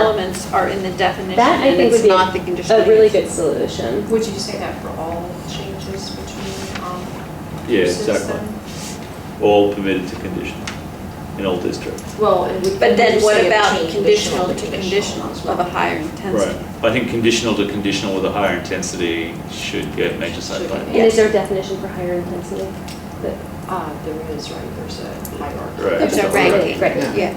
elements are in the definition, That I and think would it's be not the a- conditional a really use. good solution. Would you say that for all changes between, um, Yeah, uses exactly. then? All permitted to condition in all districts. Well, and would. But then would you what say it about between conditional to conditional conditional as of a well? higher Right. intensity? I think conditional to conditional with a higher intensity should get major site Should plan. And is there a definition for higher intensity? Uh, there is, right, there's a hierarchy. Right. There's a ranking, Right. yeah.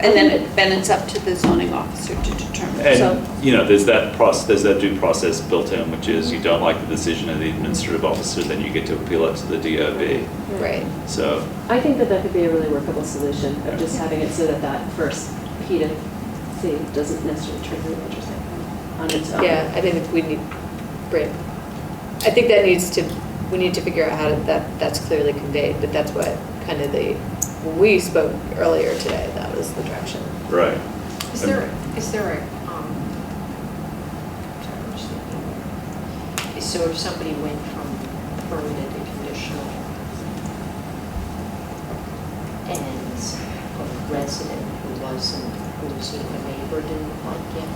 And then, it- then it's up to the zoning officer to determine, so. And, you know, there's that process, there's that due process built in, which is you don't like the decision of the administrative officer, then you get to appeal it to the DOB. Right. So, I think that that could be a really workable solution of just Yeah. having it so that that first P to C doesn't necessarily trigger an interest on its own. Yeah, I think we need, right. I think that needs to, we need to figure out how to- that, that's clearly conveyed, but that's what kind of the, when we spoke earlier today, that was the direction. right. Is there, is there a, um, sorry, I'm just thinking. so if somebody went from permanent to conditional and a resident who wasn't, who's in the neighbor didn't like it,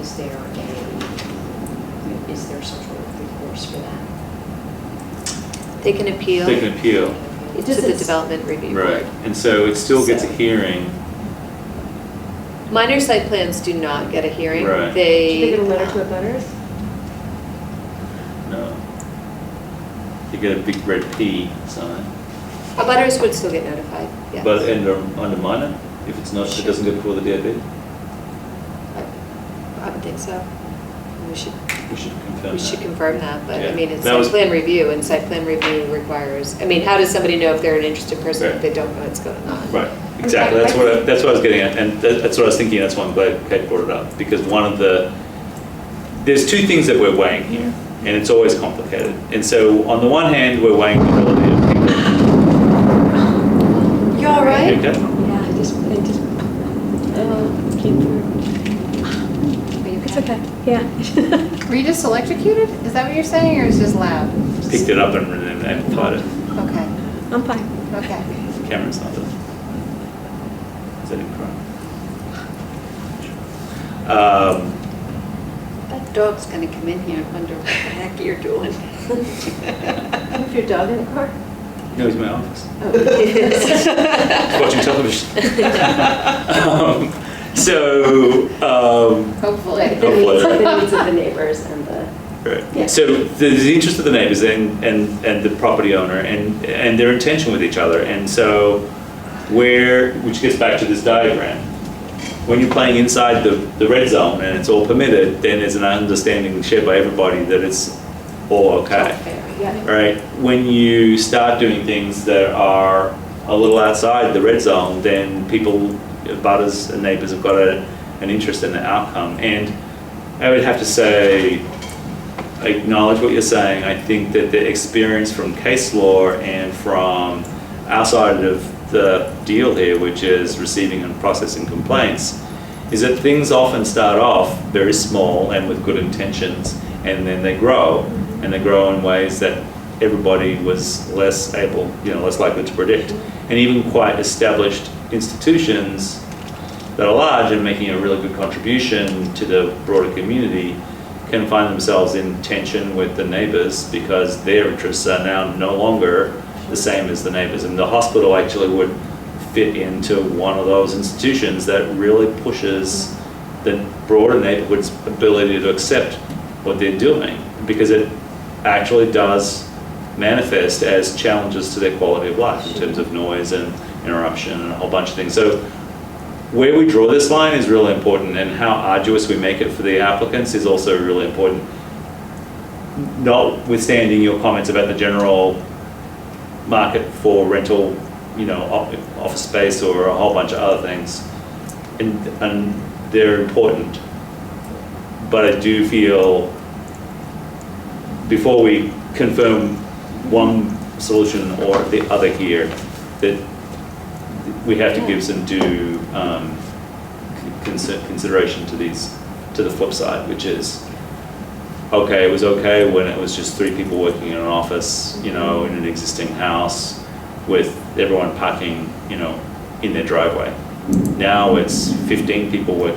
is there a, is there some sort of recourse for that? They can They appeal can appeal. It to just the is- development review Right. board. And so it still gets a So- hearing. Minor site plans do not get a hearing. Right. Should they They, get a letter to abutters? No. You get a big red P sign. abutters would still get notified, yes. But and undermine it if it's not, if it doesn't go before the DOB. I would think so. We should, We should confirm we should that. confirm that, but I Yeah. mean, it's That site was- plan review, and site plan review requires, I mean, how does somebody know if they're an interested person Right. if they don't know what's going on? Right, exactly. That's what, I- that's what I was getting at. And that- that's what I was thinking. That's why I'm glad Kate brought it up. Because one of the, there's two things that we're weighing here. And it's always complicated. And so on the one hand, we're weighing the relative. You all right? Okay? Yeah, I just, I just, um, came through. It's okay, yeah. Were you just electrocuted? Is that what you're saying, or is it just loud? Picked it up and and amplified it. Okay, I'm fine. okay. Cameron's not done. Is that in crime? Um, That dog's gonna come in here and wonder what the heck you're doing. With your dog in the car? No, he's in my office. Oh. He's watching television. Um, So, um, Right, Hopefully. the needs, letter. the needs of the neighbors and the. Yeah. Right. So the, the interest of the neighbors and, and, and the property owner and, and their intention with each other. And so where, which gets back to this diagram. When you're playing inside the, the red zone and it's all permitted, then there's an understanding shared by everybody that it's all okay. Yeah. Right? When you start doing things that are a little outside the red zone, then people, butters and neighbors have got a, an interest in the outcome. And I would have to say, I acknowledge what you're saying. I think that the experience from case law and from outside of the deal here, which is receiving and processing complaints, is that things often start off very small and with good intentions, and then they grow, and they grow in ways that everybody was less able, you know, less likely to predict. And even quite established institutions that are large and making a really good contribution to the broader community can find themselves in tension with the neighbors because their interests are now no longer the same as the neighbors. And the hospital actually would fit into one of those institutions that really pushes the broader neighborhood's ability to accept what they're doing because it actually does manifest as challenges to their quality of life in terms of noise and interruption and a whole bunch of things. So where we draw this line is really important, and how arduous we make it for the applicants is also really important. Notwithstanding your comments about the general market for rental, you know, op- office space or a whole bunch of other things, and, and they're important. But I do feel, before we confirm one solution or the other here, that we have to give some due um, con- consi- consideration to these, to the flip side, which is, okay, it was okay when it was just three people working in an office, you know, in an existing house with everyone parking, you know, in their driveway. Now it's 15 people working